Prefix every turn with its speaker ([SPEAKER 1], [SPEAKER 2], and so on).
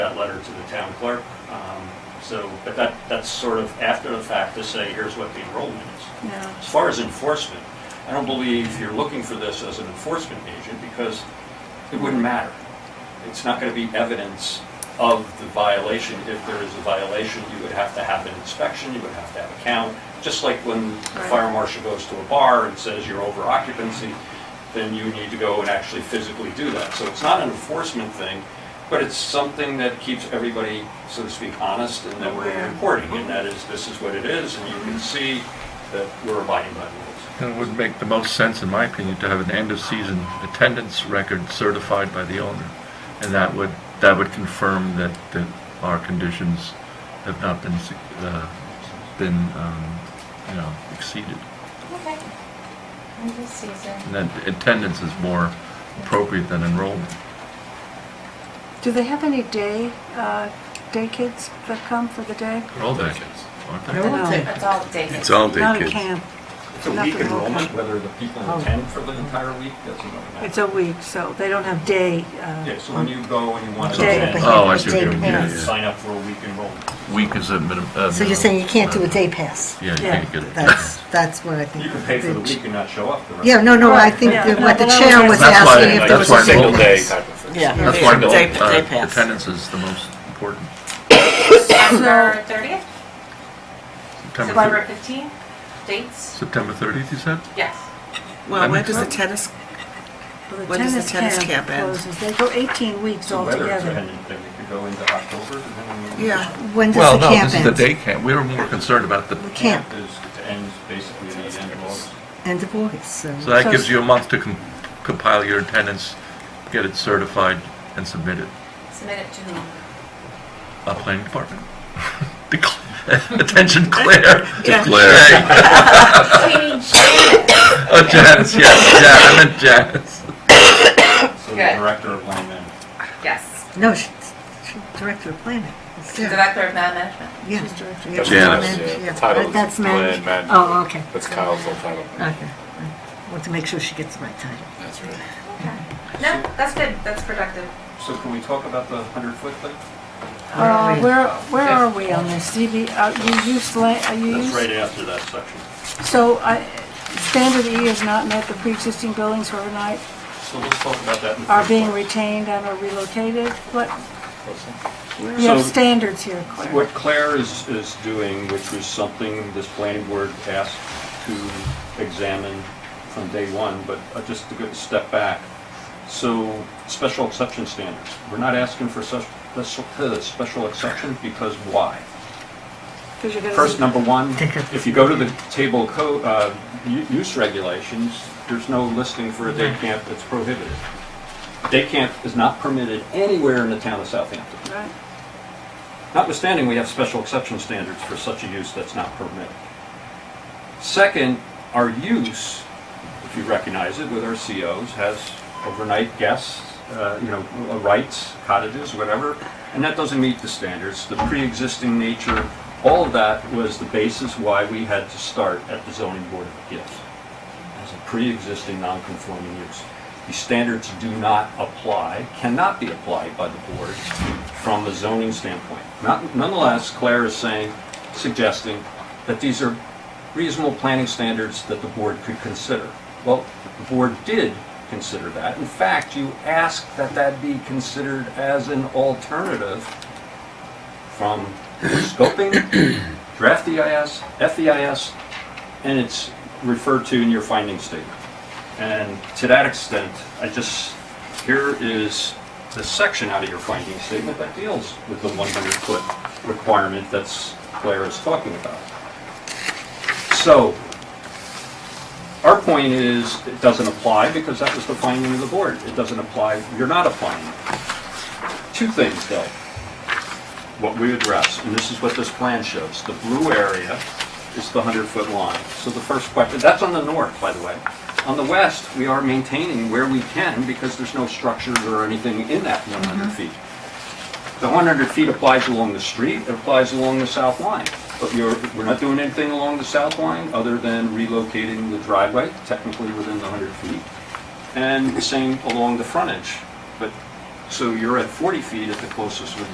[SPEAKER 1] that letter to the town clerk. Um, So, but that, that's sort of after the fact to say, here's what the enrollment is.
[SPEAKER 2] No.
[SPEAKER 1] As far as enforcement, I don't believe you're looking for this as an enforcement agent because it wouldn't matter. It's not going to be evidence of the violation. If there is a violation, you would have to have an inspection, you would have to have a count. Just like when the
[SPEAKER 2] Right.
[SPEAKER 1] fire marshal goes to a bar and says you're over occupancy, then you need to go and actually physically do that. So it's not an enforcement thing, but it's something that keeps everybody, so to speak, honest and that
[SPEAKER 2] Aware. Mm-hmm.
[SPEAKER 1] we're reporting. And that is, this is what it is, and you can see that we're abiding by the rules.
[SPEAKER 3] And it would make the most sense, in my opinion, to have an end-of-season attendance record certified by the owner. And that would, that would confirm that, that our conditions have not been, se- uh, been, um, you know, exceeded.
[SPEAKER 4] Okay. End of season.
[SPEAKER 3] And that attendance is more appropriate than enrollment.
[SPEAKER 2] Do they have any day, uh, day kids that come for the day?
[SPEAKER 3] They're all day kids, aren't they?
[SPEAKER 2] No.
[SPEAKER 4] It's all dated.
[SPEAKER 5] It's all day
[SPEAKER 2] Not a
[SPEAKER 5] kids.
[SPEAKER 2] camp.
[SPEAKER 1] It's a
[SPEAKER 2] Nothing
[SPEAKER 1] week
[SPEAKER 2] will
[SPEAKER 1] enrollment,
[SPEAKER 2] come.
[SPEAKER 1] whether the people
[SPEAKER 2] Oh.
[SPEAKER 1] attend for the entire week, doesn't really matter.
[SPEAKER 2] It's a week, so they don't have day. uh,
[SPEAKER 1] Yeah, so when you go and you want to
[SPEAKER 2] Day
[SPEAKER 1] attend,
[SPEAKER 2] pass.
[SPEAKER 3] Oh, I see what
[SPEAKER 6] Day
[SPEAKER 3] you mean, yeah,
[SPEAKER 6] pass.
[SPEAKER 3] yeah.
[SPEAKER 1] sign up for a week enrollment.
[SPEAKER 3] Week is a minimum.
[SPEAKER 6] So you're saying you can't do a day pass?
[SPEAKER 3] Yeah, you
[SPEAKER 2] Yeah,
[SPEAKER 3] can't get it.
[SPEAKER 6] That's, that's what I think.
[SPEAKER 1] You can pay for the week and not show up the rest.
[SPEAKER 6] Yeah, no, no, I
[SPEAKER 2] Right,
[SPEAKER 6] think
[SPEAKER 2] yeah.
[SPEAKER 6] that what the
[SPEAKER 2] No,
[SPEAKER 6] chair was
[SPEAKER 3] that's why-
[SPEAKER 6] asking if there
[SPEAKER 3] that's
[SPEAKER 6] was
[SPEAKER 3] why
[SPEAKER 6] a single
[SPEAKER 3] single day
[SPEAKER 6] pass.
[SPEAKER 5] of thing.
[SPEAKER 7] Yeah.
[SPEAKER 3] That's why
[SPEAKER 7] Day-
[SPEAKER 3] the,
[SPEAKER 7] day
[SPEAKER 3] uh,
[SPEAKER 7] pass.
[SPEAKER 3] attendance is the most important.
[SPEAKER 4] September thirtieth, September
[SPEAKER 3] September, thir-
[SPEAKER 4] fifteenth, dates,
[SPEAKER 3] September 30th, you said?
[SPEAKER 4] yes.
[SPEAKER 7] Well, when does the tennis,
[SPEAKER 2] well,
[SPEAKER 7] When does the tennis camp end?
[SPEAKER 2] closes. They go 18 weeks
[SPEAKER 1] So whether it's
[SPEAKER 2] altogether.
[SPEAKER 1] ended, then we could go into October and then we.
[SPEAKER 7] yeah,
[SPEAKER 6] When
[SPEAKER 3] Well,
[SPEAKER 6] does the
[SPEAKER 3] no,
[SPEAKER 6] camp
[SPEAKER 3] this is
[SPEAKER 6] end?
[SPEAKER 3] the day camp. We were more concerned about the,
[SPEAKER 6] The camp,
[SPEAKER 1] Camp is, it ends basically at the end of August.
[SPEAKER 6] end of August,
[SPEAKER 3] so
[SPEAKER 6] so,
[SPEAKER 3] that
[SPEAKER 2] So-
[SPEAKER 3] gives you a month to com- compile your attendance, get it certified, and submit it.
[SPEAKER 4] Submit it to
[SPEAKER 3] Uh, planning department. Decl- Attention, Claire.
[SPEAKER 2] Yeah.
[SPEAKER 3] Declare. Oh, Janice, yes, yeah, I meant Janice.
[SPEAKER 1] So the
[SPEAKER 4] Good.
[SPEAKER 1] director of land management.
[SPEAKER 4] Yes,
[SPEAKER 6] no, she- she- director of planning. It's-
[SPEAKER 4] the Director of Land Management.
[SPEAKER 6] Yeah.
[SPEAKER 2] She's director.
[SPEAKER 6] Yeah,
[SPEAKER 5] Janice,
[SPEAKER 6] manage-
[SPEAKER 5] yeah.
[SPEAKER 6] yeah.
[SPEAKER 5] Title is
[SPEAKER 6] That's
[SPEAKER 5] land
[SPEAKER 6] managed,
[SPEAKER 5] management.
[SPEAKER 6] oh, okay,
[SPEAKER 5] That's Kyle's whole title.
[SPEAKER 6] okay. Want to make sure she gets the right title.
[SPEAKER 5] That's right.
[SPEAKER 4] Okay. No, that's good, that's productive.
[SPEAKER 1] So can we talk about the hundred foot thing?
[SPEAKER 2] Uh, Where, where are we on this? CB, uh, you use, la- uh, you
[SPEAKER 1] That's right
[SPEAKER 2] use,
[SPEAKER 1] after that section.
[SPEAKER 2] so I- standard E has not met the pre-existing buildings overnight
[SPEAKER 1] So let's talk about that in the.
[SPEAKER 2] are
[SPEAKER 1] first
[SPEAKER 2] being
[SPEAKER 1] part.
[SPEAKER 2] retained and are relocated. What, we
[SPEAKER 1] So-
[SPEAKER 2] have standards here, Claire.
[SPEAKER 1] What Claire is, is doing, which was something this planning board asked to examine from day one, but uh, just to go a step back. So, special exception standards, we're not asking for such, special, uh, special exception because why?
[SPEAKER 2] 'Cause you're gonna-
[SPEAKER 1] First, number one,
[SPEAKER 6] Take it.
[SPEAKER 1] if you go to the table co, uh, u- use regulations, there's no listing for a day camp that's prohibited. Day camp is not permitted anywhere in the town of Southampton.
[SPEAKER 2] Right.
[SPEAKER 1] Notwithstanding, we have special exception standards for such a use that's not permitted. Second, our use, if you recognize it, with our COs, has overnight guests, uh, you know, uh, rights, cottages, whatever, and that doesn't meet the standards. The pre-existing nature, all of that was the basis why we had to start at the zoning board of appeals as a pre-existing non-conforming use. These standards do not apply, cannot be applied by the board from a zoning standpoint. Not- Nonetheless, Claire is saying, suggesting that these are reasonable planning standards that the board could consider. Well, the board did consider that. In fact, you asked that that be considered as an alternative from scoping, draft E EIS, FEIS, and it's referred to in your finding statement. And to that extent, I just, here is the section out of your finding statement that deals with the 100-foot requirement that's Claire is talking about. So, our point is, it doesn't apply because that was the finding of the board. It doesn't apply, you're not applying it. Two things, though, what we address, and this is what this plan shows. The blue area is the 100-foot line. So the first question, that's on the north, by the way. On the west, we are maintaining where we can because there's no structures or anything in that 100 feet. The 100 feet applies along the street, it applies along the south line. But you're, we're not doing anything along the south line other than relocating the driveway, technically within the 100 feet. And same along the frontage. But, so you're at 40 feet at the closest with the